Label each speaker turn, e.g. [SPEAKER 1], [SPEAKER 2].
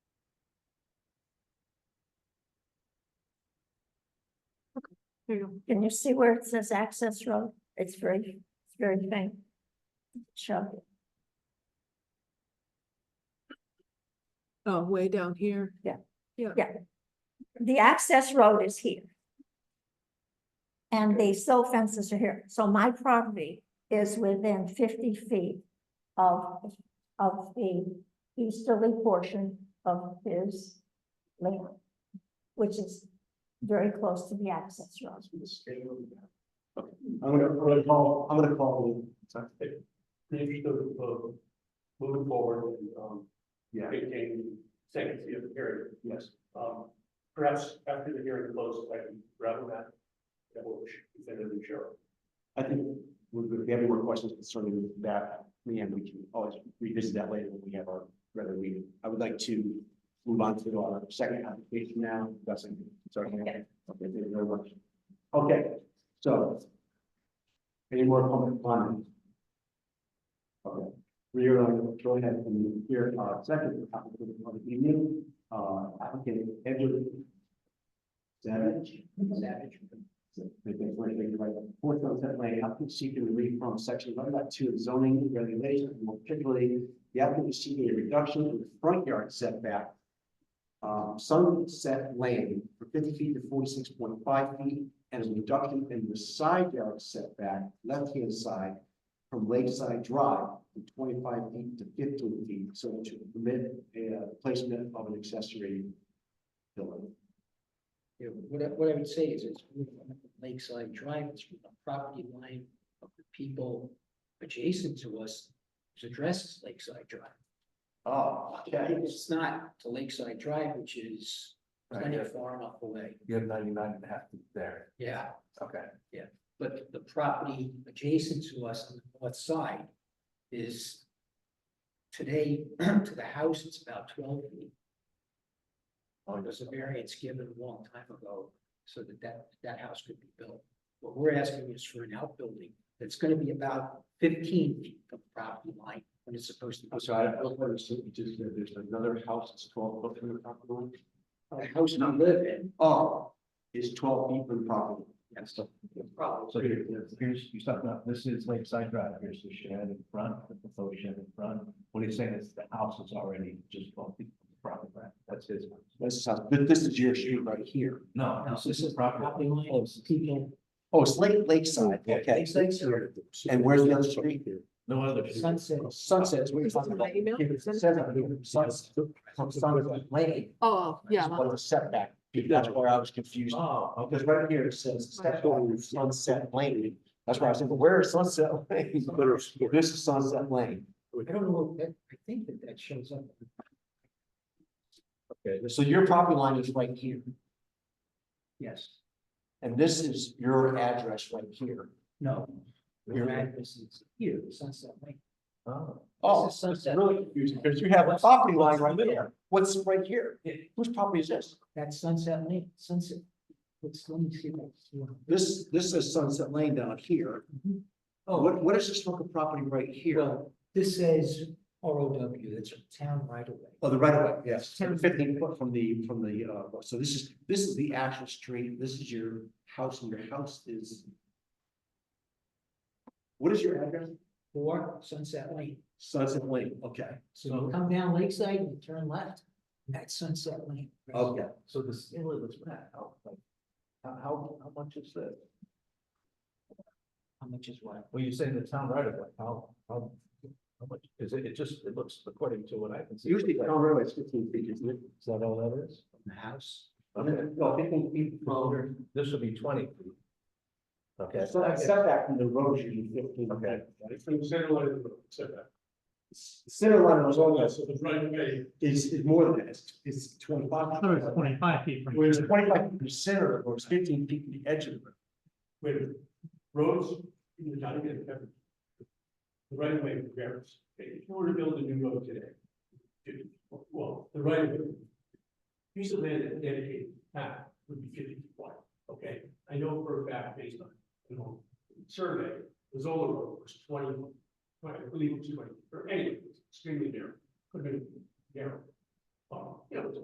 [SPEAKER 1] Hmm. Can you see where it says access road? It's very, it's very faint. Show,
[SPEAKER 2] Oh, way down here.
[SPEAKER 1] the access road is here. And the silt fences are here, so my property is within fifty feet of, of the easterly portion of his land. Which is very close to the access road.
[SPEAKER 3] Okay, I'm gonna, I'm gonna call, I'm gonna call. Maybe to, uh, move forward and, um. Yeah. Maintain sanctity of the hearing. Yes. Um, perhaps after the hearing closes, I can rather that. That will, then it'll be sure. I think, if you have any more questions concerning that, Leanne, we can always revisit that later when we have our regular meeting. I would like to move on to our second application now, that's, sorry. Okay, thank you very much. Okay, so. Any more public comment? Okay, we are going to go ahead and hear our second applicant of the evening, uh, applicant Edward. Savage. Savage. They've been waiting for the fourth sunset lane, applicant seeking relief from section eleven dot two of zoning regulations, more particularly. The applicant is seeking a reduction in the front yard setback. Um, sunset lane from fifty feet to forty-six point five feet and a reduction in the side yard setback, left-hand side from Lakeside Drive from twenty-five feet to fifteen feet, so to permit a uh, placement of an accessory building.
[SPEAKER 4] Yeah, what I, what I would say is it's really from Lakeside Drive, it's from the property line of the people adjacent to us. whose address is Lakeside Drive.
[SPEAKER 3] Oh,
[SPEAKER 4] It's not to Lakeside Drive, which is plenty of far enough away.
[SPEAKER 3] You have ninety-nine and a half feet there,
[SPEAKER 4] Yeah,
[SPEAKER 3] okay.
[SPEAKER 4] but the property adjacent to us on the north side is today to the house, it's about twelve feet.
[SPEAKER 5] Oh,
[SPEAKER 4] There was a variance given a long time ago so that that, that house could be built. What we're asking is for an outbuilding that's gonna be about fifteen feet from the property line when it's supposed to. be.
[SPEAKER 3] I'm sorry, I don't understand, you just said there's another house that's twelve foot from the property line?
[SPEAKER 4] The house we live in,
[SPEAKER 3] Oh, it's twelve feet from the property.
[SPEAKER 4] Yes.
[SPEAKER 3] So
[SPEAKER 4] probably.
[SPEAKER 5] So here, here's, you stop now, this is Lakeside Drive, here's the shed in front, the proposed shed in front. What he's saying is the house is already just twelve feet from the property line, that's his.
[SPEAKER 3] This is, how- this this is your street right here.
[SPEAKER 5] No, no,
[SPEAKER 4] Now,
[SPEAKER 5] this is property.
[SPEAKER 4] line,
[SPEAKER 5] close.
[SPEAKER 4] people,
[SPEAKER 3] Oh, it's Lake, Lakeside,
[SPEAKER 5] Yeah,
[SPEAKER 3] okay.
[SPEAKER 4] Lakeside Drive.
[SPEAKER 3] And where's the other street here?
[SPEAKER 5] No other.
[SPEAKER 4] Sunset.
[SPEAKER 3] Sunset is what you're
[SPEAKER 2] Is this
[SPEAKER 3] talking
[SPEAKER 2] in my
[SPEAKER 3] about.
[SPEAKER 2] email?
[SPEAKER 3] If it says up here, Suns- From Sunset Lane.
[SPEAKER 2] Oh, yeah.
[SPEAKER 3] What the setback, that's where I was confused,
[SPEAKER 5] Oh, okay.
[SPEAKER 3] because right here it says step on Sunset Lane, that's where I was thinking, where is Sunset Lane? This is Sunset Lane,
[SPEAKER 4] I don't know, that, I think that that shows up.
[SPEAKER 3] so your property line is right here,
[SPEAKER 4] Yes,
[SPEAKER 3] and this is your address right here.
[SPEAKER 4] no. Your
[SPEAKER 3] Your-
[SPEAKER 4] address is here, Sunset Lane.
[SPEAKER 5] Oh.
[SPEAKER 3] Oh,
[SPEAKER 4] This is
[SPEAKER 3] it's
[SPEAKER 4] Sunset.
[SPEAKER 3] really confusing, because you have a property line right there, what's right here, whose property is this?
[SPEAKER 4] That's Sunset Lane, Sunset. Let's, let me see what.
[SPEAKER 3] Oh. This, this is Sunset Lane down here,
[SPEAKER 4] Mhm.
[SPEAKER 3] what, what is this local property right here?
[SPEAKER 4] Well, this says R O W, that's a town right away.
[SPEAKER 3] Oh, the right of way, yes, So the fifteen foot from the, from the, uh, so this is, this is the actual street, this is your house, and your house is. What is your address?
[SPEAKER 4] Or Sunset Lane.
[SPEAKER 3] Sunset Lane, okay,
[SPEAKER 4] So you come down Lakeside and you turn left, that's Sunset Lane.
[SPEAKER 3] okay,
[SPEAKER 5] So the scale of this map, how, like, how, how, how much is this?
[SPEAKER 4] How much is what?
[SPEAKER 5] Well, you're saying the town right of way, how, how, how much, is it, it just, it looks according to what I can see.
[SPEAKER 3] usually
[SPEAKER 5] Is
[SPEAKER 3] town road is fifteen feet, isn't it?
[SPEAKER 5] that all that is?
[SPEAKER 4] The house.
[SPEAKER 5] Okay,
[SPEAKER 3] No, fifteen feet from,
[SPEAKER 5] this would be twenty feet. Okay.
[SPEAKER 3] so that setback from the road is usually fifteen.
[SPEAKER 5] Okay.
[SPEAKER 3] From the center line of the road, setback. Center line of the road
[SPEAKER 6] So the right of way
[SPEAKER 3] is, is more than that, it's, it's twenty-five.
[SPEAKER 6] twenty-five feet from.
[SPEAKER 3] Whereas twenty-five feet percent of the road is fifteen feet from the edge of the road.
[SPEAKER 6] With roads, you know, not even covered. The right of way varies. If you were to build a new road today. it- Well, the right of way. Piece of land that dedicated path would be fifty feet wide, okay? I know for a fact based on, you know, survey, the Zola road was twenty, I believe it was twenty, or anyway, it was extremely narrow, could have been narrow. Um, you know, it's